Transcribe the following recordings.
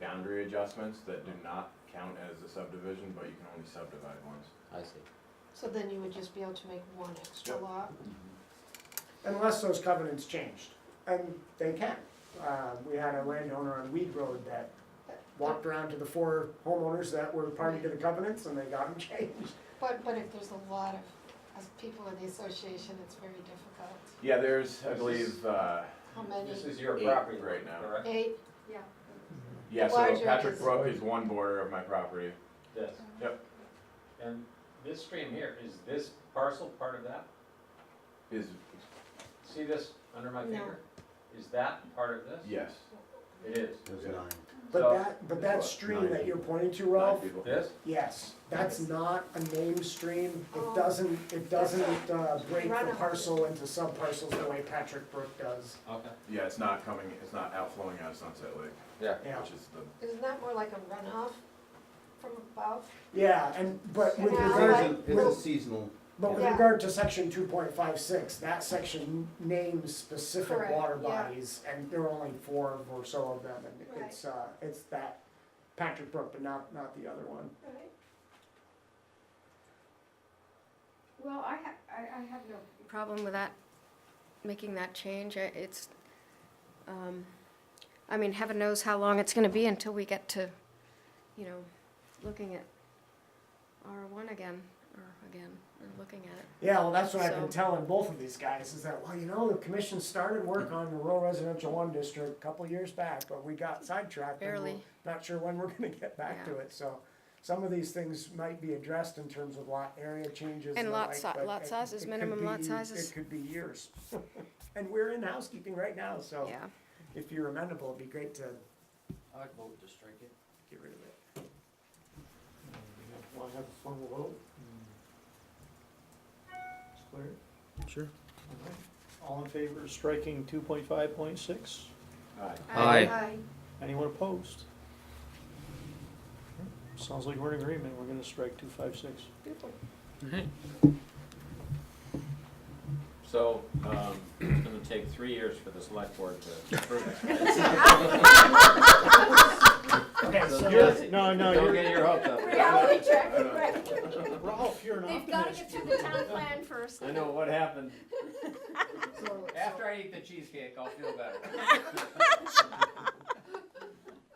boundary adjustments that do not count as a subdivision, but you can only subdivide once. I see. So then you would just be able to make one extra Yep. lot? unless those covenants changed, and they can. Uh, We had a landowner on Weed Road that walked around to the four homeowners that were party to the covenants, and they got them changed. But, but if there's a lot of, as people in the association, it's very difficult. Yeah, there's, I This believe, uh, How many? This is your Eight property right right now. now, correct? Eight? yeah, so Larger Patrick is- Brook is one border of my property. Yes. Yep. And this stream here, is this parcel part of that? Is, See this under my No. finger? Is that part of this? yes. It is. There's Yeah. nine. But So- that, but that stream that you're pointing to, Ralph, Nine people. This? yes, that's not a named stream. Oh. It doesn't, it doesn't uh, break the Runoff. parcel into subparcels the way Patrick Brook does. Okay. Yeah, it's not coming, it's not outflowing out of Sunset Lake, Yeah. Yeah, which is the Isn't that more like a runoff from above? yeah, and, but with Yeah, regard, like- It's a seasonal, But with Yeah. regard to section two point five six, that section names specific Correct, water yeah. bodies, and there are only four or so of them, and Right. it's, uh, it's that Patrick Brook, but not, not the other one. Right. Well, I ha- I, I have no problem with that, making that change. I- It's, um, I mean, heaven knows how long it's gonna be until we get to, you know, looking at R one again, or again, or looking at it. Yeah, well, that's what I've been So- telling both of these guys, is that, well, you know, the commission started work on the rural residential one district a couple years back, but we got sidetracked. and we're Barely. Not sure when we're gonna get back to Yeah. it, so some of these things might be addressed in terms of lot area changes. And the lot like, si- but lot it- sizes, it could minimum lot be- sizes. It could be years. And we're in housekeeping right now, so Yeah, if you're amenable, it'd be great to I'd vote to strike it. get rid of it. Want to have a formal vote? It's clear? Sure. All right. All in favor of striking two point five point six? Aye. Aye. Anyone opposed? Sounds like we're in agreement, we're gonna strike two five six. Beautiful. So, um, it's gonna take three years for the select board to approve it. Okay, so. No, no, Don't you're, get your hopes up. Reality check, I know. right. Ralph, you're an they've gotta optimist. get through the town plan first. I know what happened. so- After I eat the cheesecake, I'll feel better.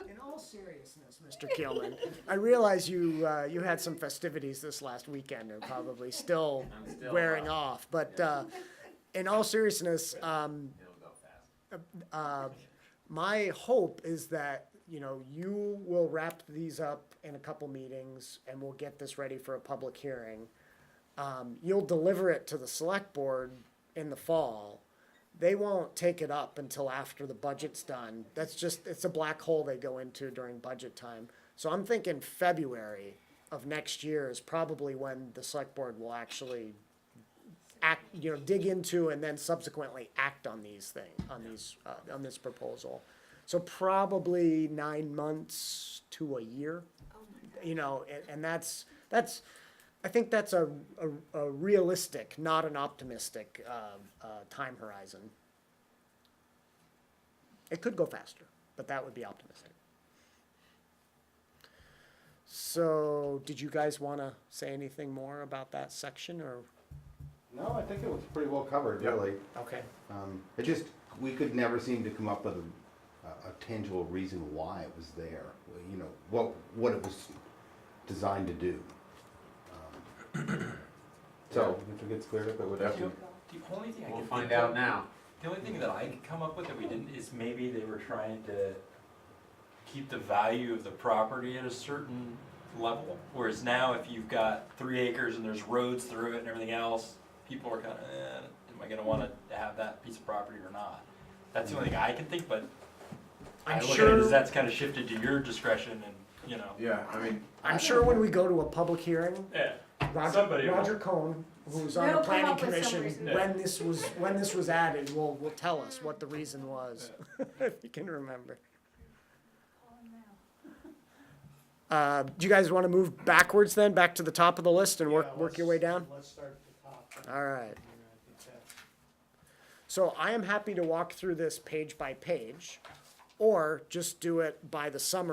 In all seriousness, Mr. Keelman, I realize you, uh, you had some festivities this last weekend and probably still I'm still wearing up. off, but, uh, in all seriousness, um, It'll go fast. uh, my hope is that, you know, you will wrap these up in a couple meetings and we'll get this ready for a public hearing. Um, you'll deliver it to the select board in the fall. They won't take it up until after the budget's done. That's just, it's a black hole they go into during budget time. So I'm thinking February of next year is probably when the select board will actually act, you know, dig into and then subsequently act on these things, on these, uh, on this proposal. So probably nine months to a year, you know, and, and that's, that's, I think that's a, a, a realistic, not an optimistic, uh, uh, time horizon. It could go faster, but that would be optimistic. So, did you guys wanna say anything more about that section or? no, I think it was pretty well covered, really. Okay. Um, It just, we could never seem to come up with a, a tangible reason why it was there, you know, what, what it was designed to do. Um, So, if it gets cleared up, it would have to. The only thing I We'll can find think out of, now. the only thing that I could come up with that we didn't is maybe they were trying to keep the value of the property at a certain level. Whereas now, if you've got three acres and there's roads through it and everything else, people are kind of, eh, am I going to want to have that piece of property or not? That's the only thing I can think, but I I'm look at it sure, as that's kind of shifted to your discretion and, you know. Yeah, I mean, I'm sure when we go to a public hearing, Yeah. Roger, Somebody will. Roger Cohn, who's on They'll the come planning up with some commission, reason. when this was, when this was added, will, will tell us what the reason was, if you can remember. Uh, do you guys wanna move backwards then, back to the top of the list and work, work your way down? Let's start at the top. Alright. So I am happy to walk through this page by page, or just do it by the summary